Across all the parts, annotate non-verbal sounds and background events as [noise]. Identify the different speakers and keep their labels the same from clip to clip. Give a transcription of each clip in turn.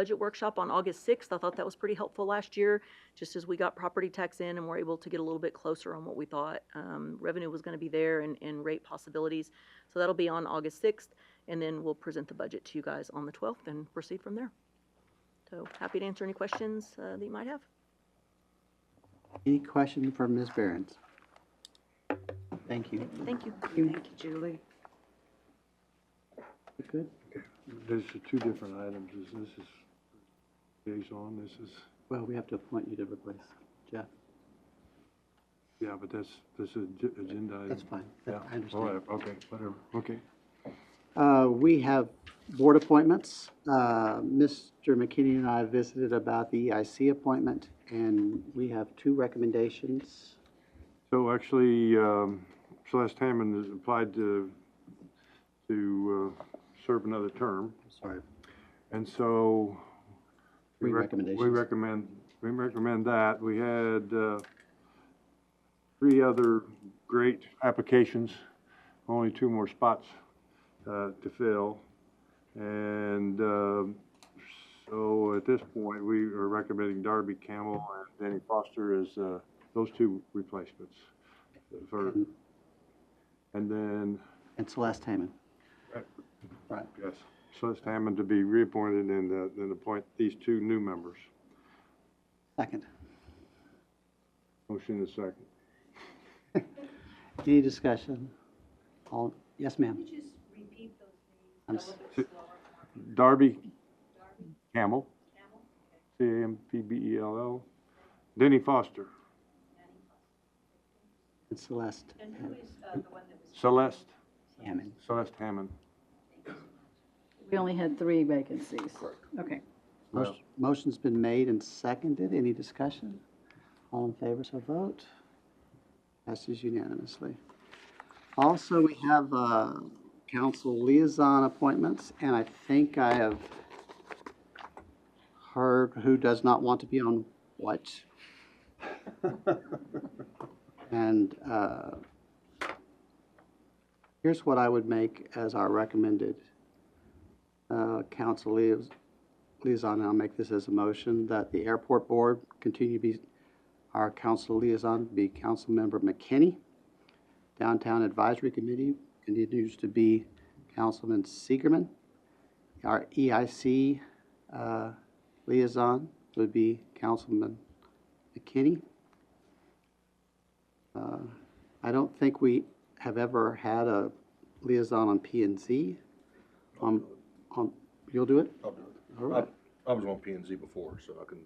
Speaker 1: budget workshop on August 6th. I thought that was pretty helpful last year, just as we got property tax in and were able to get a little bit closer on what we thought um, revenue was going to be there and, and rate possibilities. So that'll be on August 6th, and then we'll present the budget to you guys on the 12th and proceed from there. So happy to answer any questions uh, that you might have.
Speaker 2: Any question for Ms. Behrens? Thank you.
Speaker 1: Thank you.
Speaker 3: Thank you, Julie.
Speaker 2: Good.
Speaker 4: There's the two different items, is this is liaison, this is,
Speaker 2: Well, we have to appoint you to replace Jeff.
Speaker 4: yeah, but that's, this is ag- agenda. item.
Speaker 2: That's fine. That-
Speaker 4: Uh, Yeah,
Speaker 2: I
Speaker 4: all
Speaker 2: understand.
Speaker 4: right, okay, whatever, okay.
Speaker 2: Uh, we have board appointments. Uh, Mr. McKinney and I visited about the EIC appointment, and we have two recommendations.
Speaker 4: So actually, um, Celeste Hammond has applied to, to uh, serve another term,
Speaker 2: Sorry.
Speaker 4: and so. we
Speaker 2: Three
Speaker 4: rec- We
Speaker 2: recommendations.
Speaker 4: recommend, we recommend that. We had uh, three other great applications, only two more spots uh, to fill. And um, so at this point, we are recommending Darby Campbell and Danny Foster as uh, those two replacements. for- And then,
Speaker 2: And Celeste Hammond. Right.
Speaker 4: yes, Celeste Hammond to be reappointed and uh, then appoint these two new members.
Speaker 2: Second.
Speaker 4: Motion is second.
Speaker 2: Any discussion? All, yes, ma'am. I'm s-
Speaker 4: Darby Campbell. C A M P B E L L. Denny Foster.
Speaker 2: And Celeste
Speaker 4: Celeste,
Speaker 2: Hammond.
Speaker 4: Celeste Hammond.
Speaker 3: We only had three vacancies. Okay.
Speaker 4: Well-
Speaker 2: Motion's been made and seconded. Any discussion? All in favor, so vote. Passes unanimously. Also, we have uh, council liaison appointments, and I think I have heard who does not want to be on what. And uh, here's what I would make as our recommended uh, council liaison liaison, and I'll make this as a motion, that the airport board continue to be, our council liaison be Councilmember McKinney. Downtown Advisory Committee continues to be Councilman Seigerman. Our EIC uh, liaison would be Councilman McKinney. Uh, I don't think we have ever had a liaison on P and Z. On, on, you'll do it?
Speaker 5: I'll do it.
Speaker 2: All right.
Speaker 5: I was on P and Z before, so I can,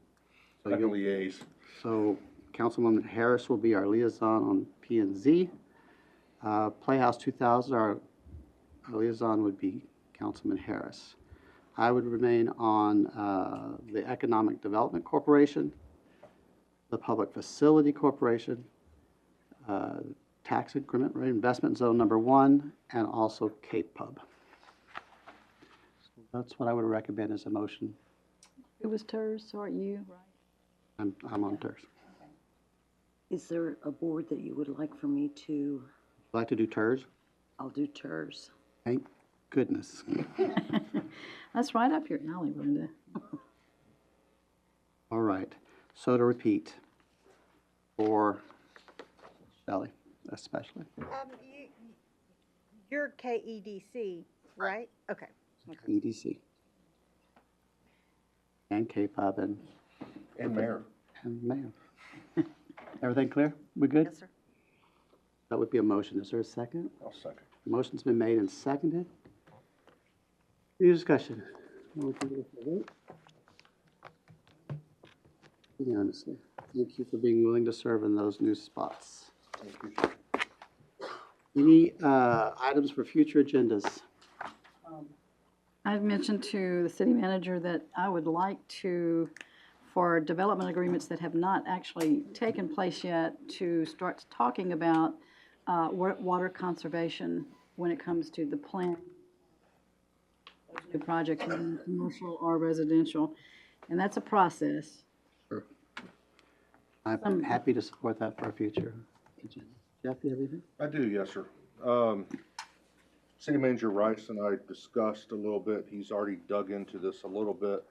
Speaker 2: So
Speaker 5: I can
Speaker 2: you'll-
Speaker 5: liaise.
Speaker 2: So Councilwoman Harris will be our liaison on P and Z. Uh, Playhouse 2000, our our liaison would be Councilman Harris. I would remain on uh, the Economic Development Corporation, the Public Facility Corporation, uh, Tax Increment Reinvestment Zone Number One, and also Cape Pub. So That's what I would recommend as a motion.
Speaker 3: It was Ters, or you?
Speaker 2: I'm I'm on TERS.
Speaker 6: Is there a board that you would like for me to,
Speaker 2: Would like to do TERS?
Speaker 6: I'll do TERS.
Speaker 2: Thank goodness.
Speaker 3: [laughs] That's right up your alley, Rhonda.
Speaker 2: All right, so to repeat, for Shelley especially.
Speaker 7: Um, you, you're KEDC, right? Okay.
Speaker 2: EDC. E And K-pop and,
Speaker 5: And mayor.
Speaker 2: and mayor. [laughs] Everything clear? We good?
Speaker 7: sir.
Speaker 2: That would be a motion. Is there a second?
Speaker 5: I'll second.
Speaker 2: Motion's been made and seconded. Any discussion? All in favor, say aye. Unanimously. Thank you for being willing to serve in those new spots. Any uh, items for future agendas?
Speaker 3: I've mentioned to the city manager that I would like to, for development agreements that have not actually taken place yet, to start talking about uh, wa- water conservation when it comes to the plant, new projects, whether commercial or residential, and that's a process.
Speaker 2: I'm happy to support that for our future agenda. Jeff, you have anything?
Speaker 5: I do, yes, sir. Um, City Manager Rice and I discussed a little bit, he's already dug into this a little bit,